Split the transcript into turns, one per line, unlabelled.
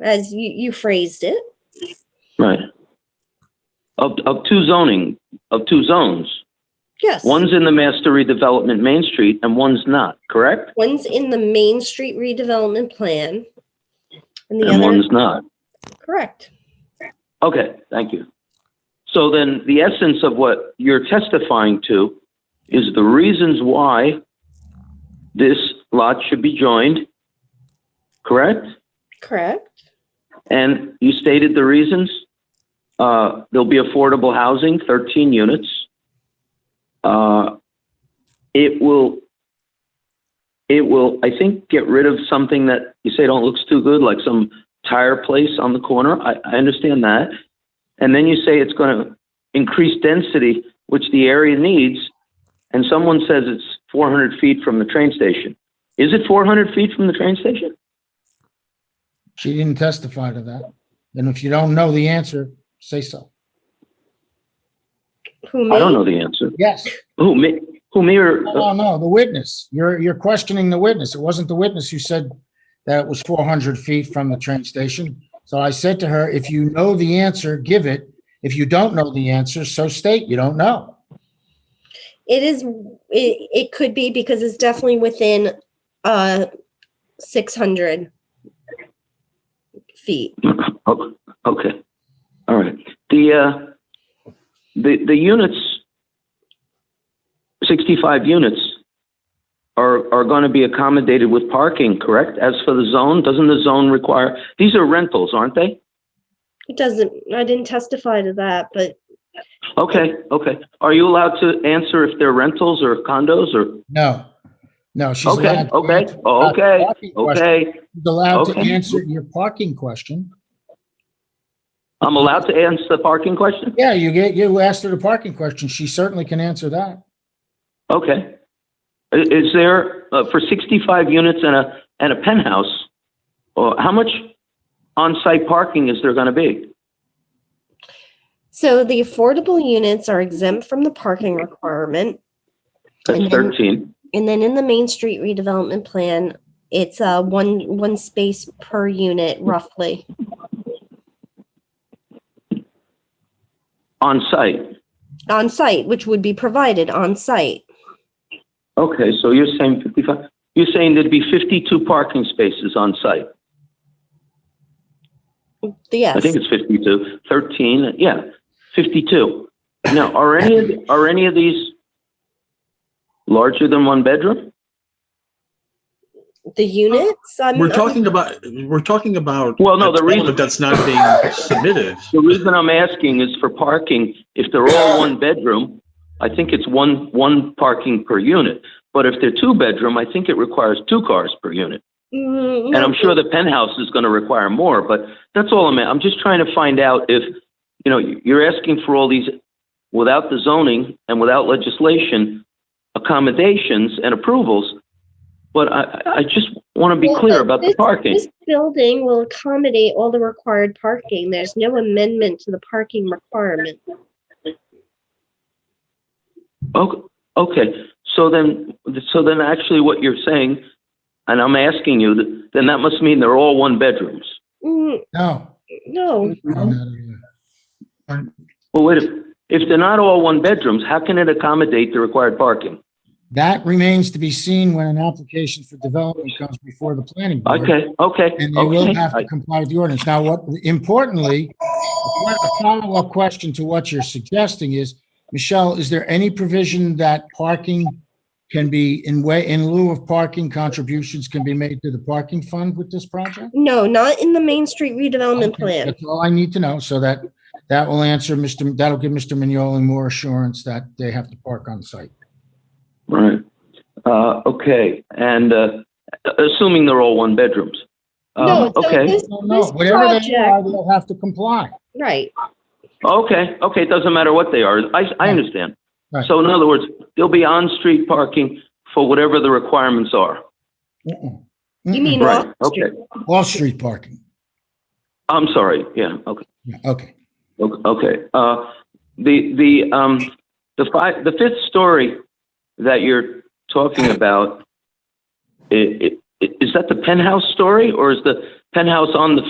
as you, you phrased it.
Right. Of, of two zoning, of two zones.
Yes.
One's in the master redevelopment Main Street and one's not, correct?
One's in the Main Street redevelopment plan. And the
And
other,
one's not.
correct.
Okay, thank you. So then the essence of what you're testifying to is the reasons why this lot should be joined, correct?
Correct.
And you stated the reasons. Uh, there'll be affordable housing, 13 units. Uh, it will, it will, I think, get rid of something that you say don't looks too good, like some tire place on the corner. I, I understand that. And then you say it's going to increase density, which the area needs. And someone says it's 400 feet from the train station. Is it 400 feet from the train station?
She didn't testify to that. And if you don't know the answer, say so.
Who
I don't
made,
know the answer.
Yes.
Who, me, who, me or?
No, no, the witness. You're, you're questioning the witness. It wasn't the witness who said that it was 400 feet from the train station. So I said to her, if you know the answer, give it. If you don't know the answer, so state you don't know.
it is, it, it could be because it's definitely within, uh, six hundred feet.
Oh, Okay, all right. The, uh, the, the units, 65 units are, are going to be accommodated with parking, correct? As for the zone, doesn't the zone require, these are rentals, aren't they?
It doesn't, I didn't testify to that, but
Okay, okay. Are you allowed to answer if they're rentals or condos or?
No, no, she's
Okay,
allowed. to
okay,
answer
oh,
about the
okay,
parking question.
okay.
She's allowed to
okay.
answer your parking question.
I'm allowed to answer the parking question?
Yeah, you get, you asked her the parking question. She certainly can answer that.
Okay. I- Is there, uh, for 65 units and a, and a penthouse, or how much on-site parking is there going to be?
so the affordable units are exempt from the parking requirement.
That's
Mhm.
13.
And then in the Main Street redevelopment plan, it's uh one, one space per unit
Hmm.
roughly.
On-site.
on site, which would be provided on site.
Okay, so you're saying 55, you're saying there'd be 52 parking spaces on-site? I
Yes,
think it's 52, 13, yeah, 52. Now, are any, of are any of these larger than one bedroom?
the units. I'm-
We're talking about, we're talking about.
Well, no,
a
the reason-
development That's not being submitted.
The reason I'm asking is for parking, if they're all one bedroom, I think it's one, one parking per unit. But if they're two bedroom, I think it requires two cars per unit.
Mm,
And I'm sure the penthouse is gonna require more, but that's all I'm, I'm just trying to find out if, you know, you're asking for all these, without the zoning and without legislation, accommodations and approvals. But I, I- I just wanna be
Well,
clear
uh,
about the parking.
This building will accommodate all the required parking. There's no amendment to the parking requirement.
Okay, okay, so then, so then actually what you're saying, and I'm asking you, th- then that must mean they're all one bedrooms.
Mm,
No.
No,
Well, wait, a- if they're not all one bedrooms, how can it accommodate the required parking?
That remains to be seen when an application for development comes before the planning board.
Okay, okay,
And they will
okay.
have to
I-
comply with the ordinance. Now, what, importantly, a follow-up question to what you're suggesting is, Michelle, is there any provision that parking can be, in way, in lieu of parking contributions can be made to the parking fund with this project?
no, not in the Main Street redevelopment plan.
That's all I need to know, so that, that will answer Mr., that'll give Mr. Mignoli more assurance that they have to park on site.
Right, uh, okay, and, uh, assuming they're all one bedrooms.
No,
Um,
so
okay,
this,
No, no,
this
whatever they
project,
are, they'll have to comply.
right,
okay, okay, it doesn't matter what they are, I, I understand.
Right.
So in other words, there'll be on-street parking for whatever the requirements are.
Mm-mm.
you
Mm-mm.
mean
Right,
off
okay.
street.
Off-street parking.
I'm sorry, yeah, okay.
Yeah, okay.
O- Okay, uh, the, the, um, the five, the fifth story that you're talking about, i- i- is that the penthouse story or is the penthouse on the